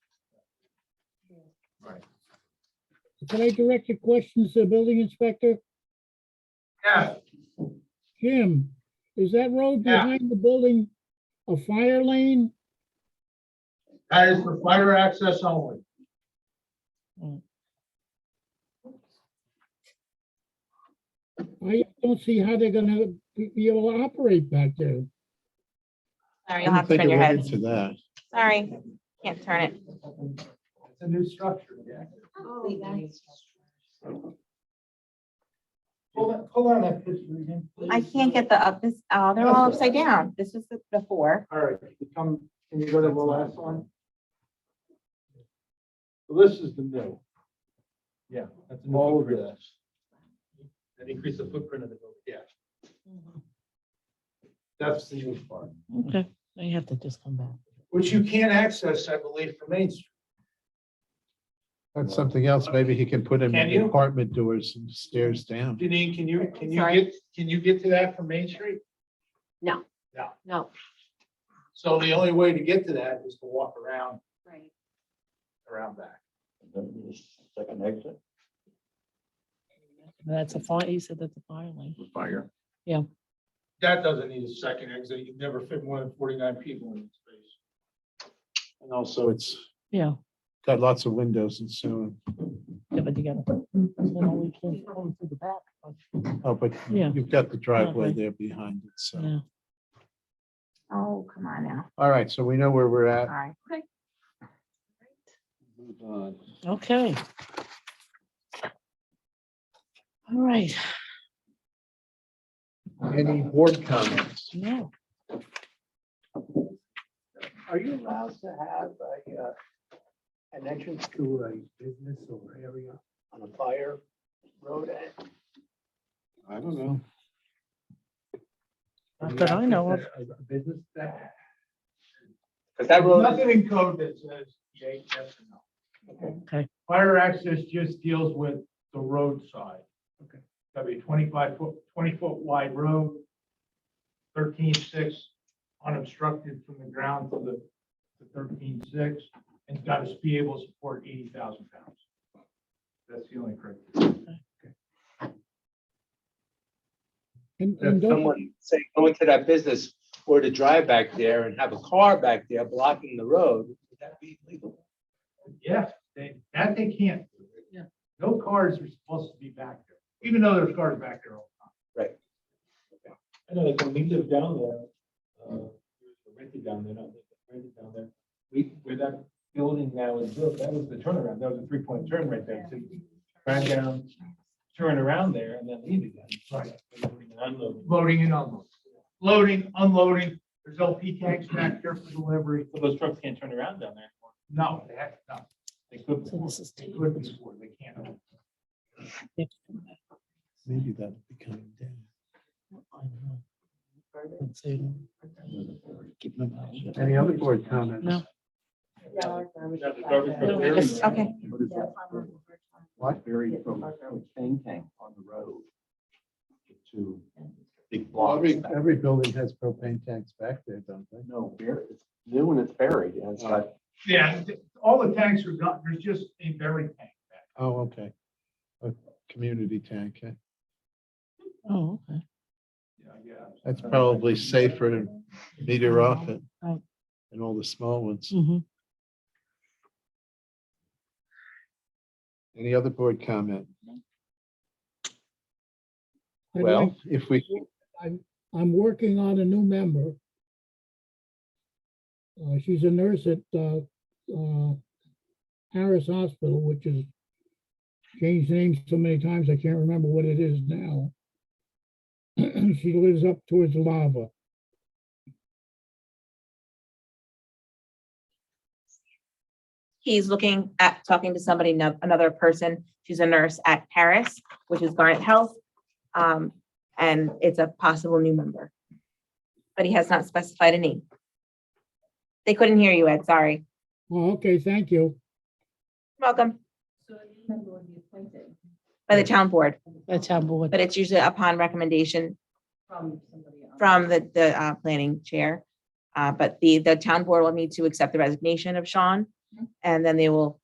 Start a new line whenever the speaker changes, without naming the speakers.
Can I direct your questions to the building inspector?
Yeah,
Jim, is that road
Yeah.
behind the building a fire lane?
that is for fire access only.
I don't see how they're gonna be be able to operate back there.
I
Sorry, you'll
didn't
have to
think
turn
it
your
went
head.
into that.
Sorry, can't turn it.
It's a new structure, yeah. Hold on, hold on that picture again. please.
I can't get the up, this, oh, they're all upside down. This was the before.
All right, you come, can you go to the last one? This is the new. Yeah. That's all of this. And increase the footprint of the building. Yeah. That's the new part,
Okay, now you have to just come back.
which you can't access, I believe, from Main Street.
That's something else. Maybe he can put in
Can you?
apartment doors and stairs down.
Janine, can you, can you
Sorry.
get, can you get to that from Main Street?
No,
So the only way to get to that is to walk around,
right.
around back.
Second exit?
That's a fire, you said that's a fire lane.
Fire.
That doesn't need a second exit. You'd never fit more than forty-nine people in space.
And also it's
Yeah,
got lots of windows and so,
get it together. Then we can go in through the back, but,
on. oh, but
Yeah.
you've got the driveway
Driveway.
there behind it. So,
yeah.
Oh, come on now.
all right. So we know where we're
All
at.
right.
Okay. All right,
Any board comments?
no,
Are you allowed to have a, uh, an entrance to a business or area on a fire road?
I don't know.
Not that I know of.
A business that.
Cause that road. Nothing in code that says yay, yes, or no.
okay,
Fire access just deals with the roadside.
Okay.
That'd be twenty-five foot, twenty foot wide road, thirteen-six unobstructed from the ground to the, to thirteen-six, and it's gotta be able to support eighty thousand pounds. That's the only criteria.
And, and
If
don't-
someone, say, go into that business or to drive back there and have a car back there blocking the road, would that be legal?
Yes, they, that they can't. do. No cars are supposed to be back there, even though there's cars back there all the time.
Right.
I know, like, when we lived down there, uh, rented down there, not rented down there, we, where that building now is built, that was the turnaround, that was a three-point turn right there. So you drive down, turn around there and then leave again. Right. Loading and unloading. Loading, unloading, there's LP tanks back there for delivery. Those trucks can't turn around down there. No, they have, no. They couldn't.
So this is
They couldn't before, they can't.
Maybe that'll be coming down.
I don't know. Let's see.
Any other board comments?
No.
Okay.
What? Buried from Tang Tang on the road. To big blocks.
Every, every building has propane tanks back there, don't they?
No, bur- it's new and it's buried and it's got
Yeah, th- all the tanks are gone, there's just a buried tank back.
Oh, okay. A community tank. eh?
Oh, okay,
Yeah, yeah.
That's probably safer and meter off it.
Right.
And all the small ones.
hmm
Any other board comment?
I'd
Well,
like-
if we,
I'm working on a new member. Uh, she's a nurse at, uh, uh, Harris Hospital, which has changed names so many times, I can't remember what it is now. She lives up towards lava.
He's looking at talking to somebody, no- another person. She's a nurse at Paris, which is Garnet Health. Um, and it's a possible new member. But he has not specified a name. They couldn't hear you, Ed, sorry.
Oh, okay, thank you.
Welcome. By the town board,
the town board,
but it's usually upon recommendation from the, the uh, planning chair. Uh, But the, the town board will need to accept the resignation of Sean, and then they will